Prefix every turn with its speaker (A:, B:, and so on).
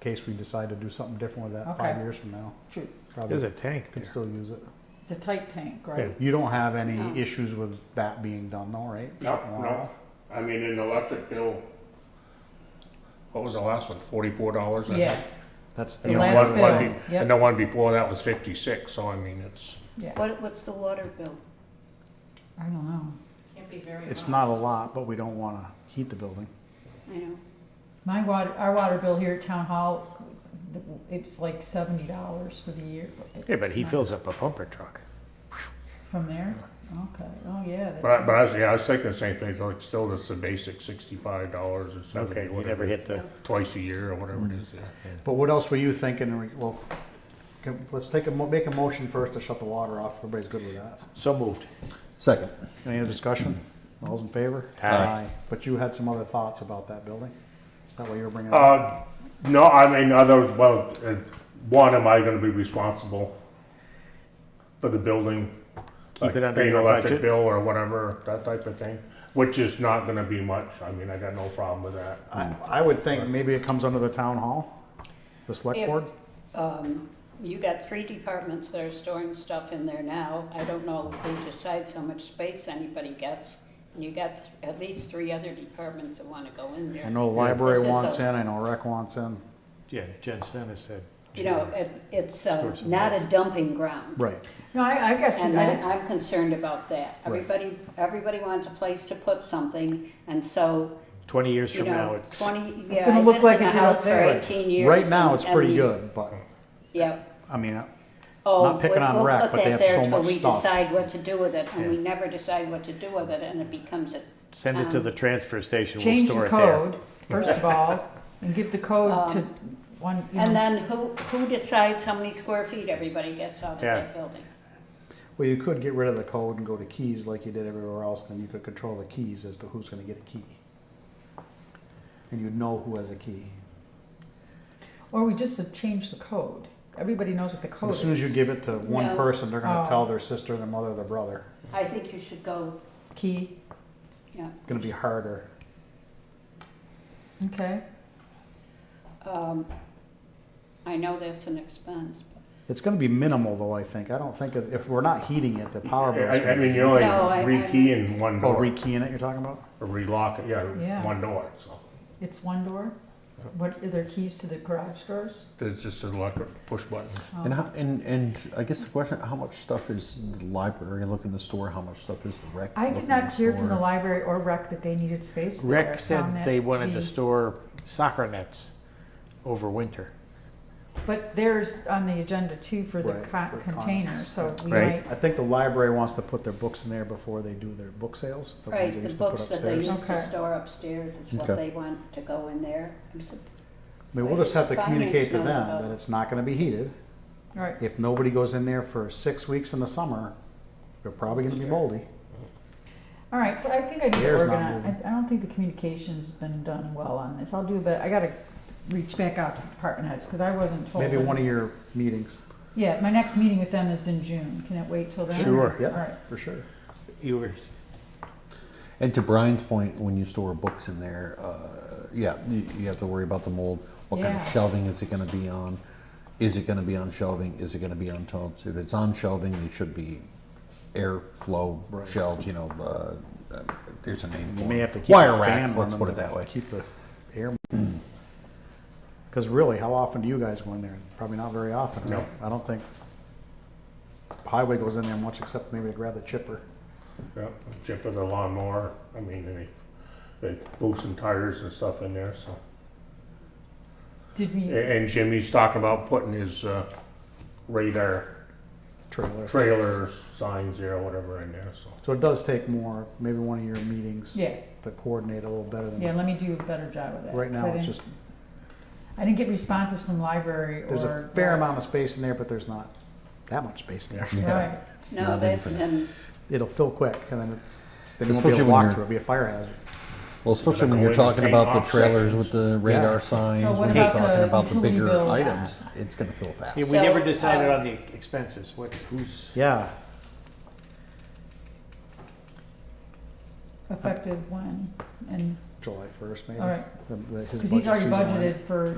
A: case we decide to do something different with that
B: Okay.
A: five years from now.
B: Shoot,
A: Probably
C: There's a tank
A: could
C: there.
A: still use it.
B: it's a tight tank, right? Oh.
A: You don't have any
D: No.
A: issues with that being done though, right?
E: No,
A: Something
E: no.
A: wrong.
E: I mean, an electric bill, what was the last one, forty-four dollars?
B: Yeah,
A: That's
B: the
E: You know,
B: last
E: one- one
B: bill,
E: be-
B: yep.
E: And the one before that was fifty-six, so I mean, it's,
B: yeah,
D: What, what's the water bill?
B: I don't know.
F: Can't be very
A: It's
F: much.
A: not a lot, but we don't wanna heat the building.
D: I know.
B: My water, our water bill here at Town Hall, it's like seventy dollars for the year.
C: Yeah, but
B: It's
C: he
B: not-
C: fills up a pumper truck.
B: From there? Okay, oh, yeah. that's-
E: but I, but I was, yeah, I was thinking the same thing, so it's still just the basic sixty-five dollars or something.
C: Okay, you never hit the,
E: Twice a year or whatever it is, yeah.
A: But what else were you thinking? in re- Well, can- let's take a, mo- make a motion first to shut the water off. Everybody's good with that.
C: so moved.
G: Second.
A: Any other discussion? All's in favor?
C: Aye.
A: But you had some other thoughts about that building? Is that what you were bringing up?
E: Uh, no, I mean, other, well, uh, one, am I gonna be responsible for the building?
C: Keep it
E: Like,
C: under
E: paying
C: your
E: electric
C: budget.
E: Bill or whatever, that type of thing, which is not gonna be much, I mean, I got no problem with that.
A: I, I would think maybe it comes under the town hall, the select
D: If-
A: board?
D: Um, you got three departments that are storing stuff in there now. I don't know who decides how much space anybody gets. And you got th- at least three other departments that wanna go in there.
A: I know the library
D: This is
A: wants
D: a-
A: in, I know rec wants in.
C: Yeah, Jen Stennis said.
D: You know, it, it's, uh,
C: Store some
D: not a dumping ground.
A: Right.
B: No, I, I guess,
D: And I,
B: I,
D: I'm concerned about that.
A: Right.
D: Everybody, everybody wants a place to put something, and so,
C: Twenty years
D: you
C: from now,
D: know,
C: it's.
D: twenty, yeah,
B: gonna
D: I
B: look
D: lived
B: like
D: in a
B: it's out
D: house for
B: there.
A: Right.
D: eighteen years.
A: Right now,
D: and-
A: it's
D: and E.
A: pretty
D: the-
A: good, but,
D: Yeah.
A: I mean, uh,
D: Oh,
A: Not picking
D: we'll-
A: on
D: we'll
A: rec,
D: put
A: but they
D: that
A: have
D: there
A: so
D: till
A: much
D: we
A: stuff.
D: Decide what to do with it, and we never decide what to do with it, and it becomes a.
C: Send it to
D: um,
C: the transfer station, we'll
B: change
C: store
B: the
C: it there.
B: code, first of all, and give the code to one, you
D: Um, And
B: know,
D: then who, who decides how many square feet everybody gets out of
C: Yeah.
D: that building?
A: well, you could get rid of the code and go to keys like you did everywhere else, then you could control the keys as to who's gonna get a key. And you'd know who has a key.
B: or we just have changed the code. Everybody knows what the code
A: As
B: is.
A: soon as you give it to one
D: No.
A: person, they're gonna
B: Oh.
A: tell their sister, their mother, their brother.
D: I think you should go,
B: Key,
D: yeah,
A: It's gonna be harder.
B: okay,
D: um, I know that's an expense.
A: It's gonna be minimal though, I think. I don't think, if if we're not heating it, the power bill's
E: I, I
A: gonna be.
E: mean, you only
D: No, I-
E: rekey in one
A: Oh,
E: door,
A: rekeying it you're talking about?
E: or relock it,
B: Yeah.
E: yeah, one door, so.
B: it's one door? What, are there keys to the garage doors?
E: There's just an electric push button.
B: Oh.
G: And, how, and and I guess the question: How much stuff is the library looking to store? How much stuff is the rec?
B: I did
G: looking
B: not
G: to
B: hear from the
G: store?
B: library or rec that they needed space there. I
C: Rec
B: found
C: said
B: that
C: they wanted
B: be-
C: to store soccer nets over winter.
B: But there's on the agenda too for the
A: Right,
B: co-
A: for
B: container,
A: cons.
B: so we might,
C: Right.
A: I think the library wants to put their books in there before they do their book sales. the ones
D: Right,
A: they
D: the
A: used to put
D: books that they
A: upstairs.
D: used to
B: Okay.
D: store upstairs is what
G: Okay.
D: they want to go in there. I'm sup-
A: I mean, we'll just have to
D: Finance
A: communicate to
D: knows
A: them
D: about
A: that
D: it.
A: it's not gonna be heated.
B: right,
A: If nobody goes in there for six weeks in the summer, they're probably gonna be moldy.
B: all right, so I think I need to
A: Air's not
B: organize,
A: moving.
B: I, I don't think the communication's been done well on this, I'll do, but I gotta reach back out to department heads, cause I wasn't told.
A: Maybe one of your meetings.
B: Yeah, my next meeting with them is in June, can it wait till then?
C: Sure.
B: All right,
A: Yeah, for sure.
C: Yours.
G: And to Brian's point, when you store books in there, uh, yeah, you, you have to worry about the mold. What kind
B: Yeah.
G: of shelving is it going to be on? Is it going to be on shelving? Is it going to be on totes? If it's on shelving, they should be airflow shelves. You know, uh, uh, there's a name.
A: You
G: for
A: may
G: it.
A: have to keep
G: wire
A: the
G: racks.
A: fan
G: Let's put
A: running
G: it that
A: to
G: way.
A: Keep the air. Because really, how often do you guys go in there? Probably not very often.
E: No.
A: right? I don't think highway goes in there much, except maybe to grab the chipper.
E: Yeah, chip of the lawnmower, I mean, and they, they move some tires and stuff in there, so.
B: did we?
E: A-
A: Eh.
E: And Jimmy's talking about putting his, uh, radar
A: Trailer.
E: trailer signs there, or whatever in there, so.
A: So it does take more, maybe one of your meetings
B: Yeah,
A: to coordinate a little better than.
B: yeah, let me do a better job of that.
A: Right
B: 'cause I
A: now, it's
B: didn't-
A: just,
B: I didn't get responses from library or. uh,
A: there's a fair amount of space in there, but there's not that much space in there.
G: Yeah.
B: Right,
D: No,
G: Not
D: that's,
G: infinite.
D: and
A: It'll fill quick and then, it- then you won't be able
G: Especially
A: to
G: when
A: walk
G: you're-
A: through, it'll be a fire hazard.
G: Well, especially
E: Like
G: when
E: a
G: you're
E: way to
G: talking
E: pay
G: about the
E: off
G: trailers
E: sections.
G: with the radar
A: Yeah.
G: signs,
B: So what
G: when you're
B: about
G: talking
B: the
G: about the
B: utility
G: bigger
B: bills?
G: items, it's going to fill fast.
C: Yeah, we
D: So,
C: never decided
D: uh,
C: on the expenses, what's, who's,
A: Yeah,
B: effective when, and,
A: July first maybe.
B: all right,
A: The- the- his
B: cause he's
A: budget
B: already
A: season.
B: budgeted for